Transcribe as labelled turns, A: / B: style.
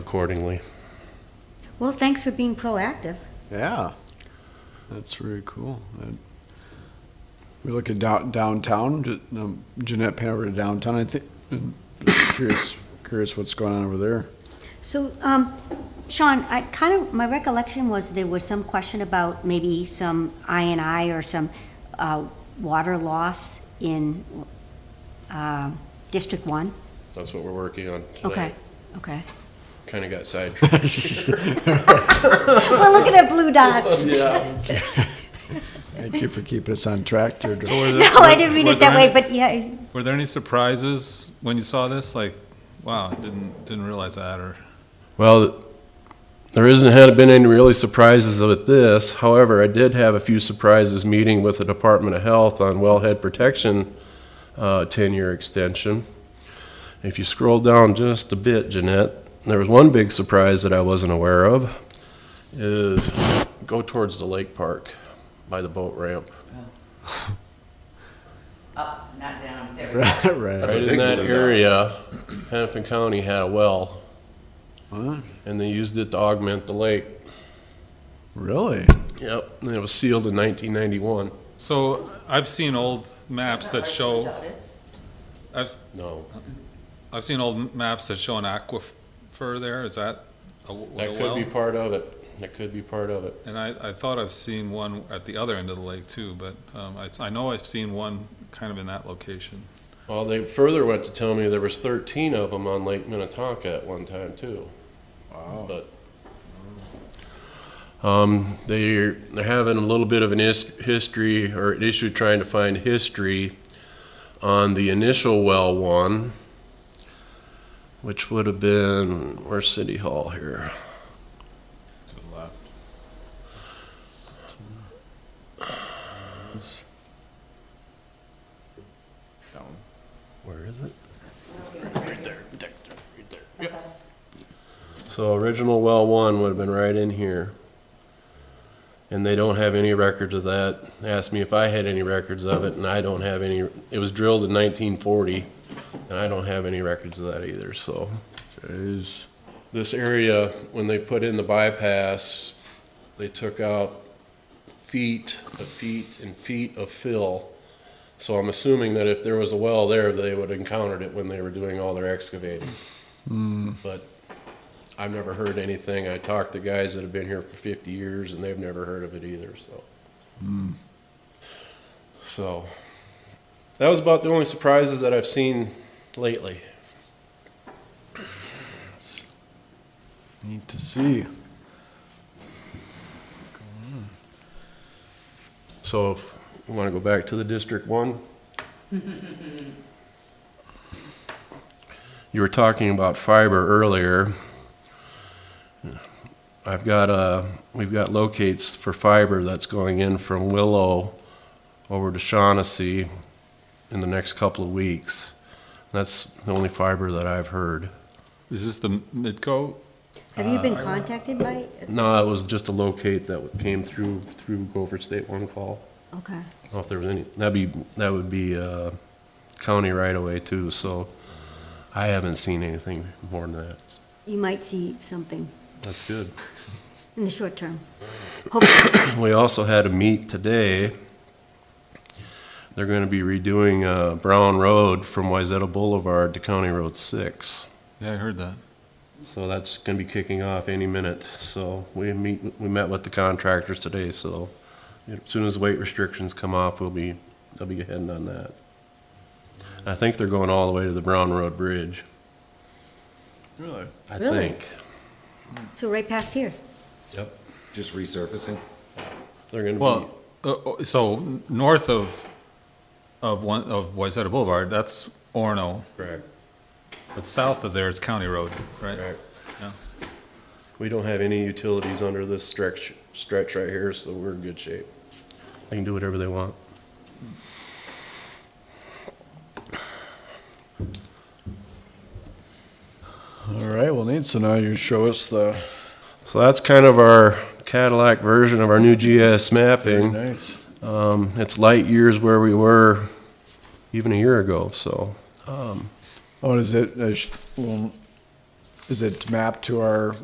A: accordingly.
B: Well, thanks for being proactive.
C: Yeah, that's really cool. That- We look at dow- downtown, J- um, Jeanette pan over to downtown, I think, and curious, curious what's going on over there.
B: So, um, Sean, I kind of, my recollection was there was some question about maybe some I and I or some uh, water loss in uh, District One?
A: That's what we're working on today.
B: Okay, okay.
A: Kind of got sidetracked.
B: Well, look at the blue dots.
A: yeah.
C: Thank you for keeping us on track, Deirdre.
D: Were there-
B: No, I
D: were-
B: didn't mean
D: were
B: it that
D: there
B: way,
D: any-
B: but yeah,
D: Were there any surprises when you saw this? Like, wow, didn't, didn't realize that, or?
A: Well, there isn't had been any really surprises with this. However, I did have a few surprises meeting with the Department of Health on wellhead protection uh, 10-year extension. If you scroll down just a bit, Jeanette, there was one big surprise that I wasn't aware of. Is go towards the lake park by the boat ramp.
E: Up, not down, there we go.
C: Right.
A: Right in that area, Hennepin County had a well, and they used it to augment the lake.
C: Really?
A: Yep, and it was sealed in 1991.
D: So I've seen old maps that show, I've,
A: No,
D: I've seen old maps that show an aquifer there. Is that a w-
A: that
D: a
A: could be
D: well?
A: part of it. That could be part of it.
D: And I, I thought I've seen one at the other end of the lake too, but, um, I, I know I've seen one kind of in that location.
A: Well, they further went to tell me there was 13 of them on Lake Minnetonka at one time too. Wow. But um, they're they're having a little bit of an is- history or an issue trying to find history on the initial well one, which would have been where's City Hall here.
D: To the left.
A: Where is it? Right there, right there, right there.
E: That's us.
A: So original well one would have been right in here. And they don't have any records of that. They Asked me if I had any records of it, and I don't have any. It was drilled in nineteen forty, and I don't have any records of that either, so.
C: Jeez.
A: This area, when they put in the bypass, they took out feet, of feet and feet of fill. So I'm assuming that if there was a well there, they would have encountered it when they were doing all their excavating. But I've never heard anything. I talked to guys that have been here for fifty years and they've never heard of it either, so. So, that was about the only surprises that I've seen lately.
C: Need to see.
A: So if you want to go back to the District One? You were talking about fiber earlier. I've got a, we've got locates for fiber that's going in from Willow over to Shaughnessy in the next couple of weeks. That's the only fiber that I've heard.
D: Is this the Midco?
B: have you been contacted by,
A: No, it was just a locate that came through, through Gopher State One call.
B: okay.
A: I don't know if there was any, that'd be, that would be uh, county right away too, so I haven't seen anything more than that.
B: You might see something
A: That's good.
B: in the short term.
A: We also had a meet today. They're gonna be redoing uh, Brown Road from Wayzata Boulevard to County Road Six.
D: Yeah, I heard that.
A: So that's gonna be kicking off any minute, so we meet, we met with the contractors today, so as soon as weight restrictions come off, we'll be, they'll be heading on that. I think they're going all the way to the Brown Road Bridge.
C: Really?
A: I
B: Really?
A: think.
B: So right past here.
A: Yep.
F: Just resurfacing?
A: They're gonna
D: Well,
A: be,
D: uh, uh, so n- north of, of one, of Wayzata Boulevard, that's Orno,
A: correct,
D: but south of there is County Road, right?
A: correct.
D: Yeah.
A: We don't have any utilities under this stretch, stretch right here, so we're in good shape. They can do whatever they want.
C: All right, well, neat. So now you show us the,
A: So that's kind of our Cadillac version of our new GIS
C: very
A: mapping.
C: nice.
A: Um, it's light years where we were even a year ago, so. Um,
C: Oh, is it, I sh- well, is it mapped to our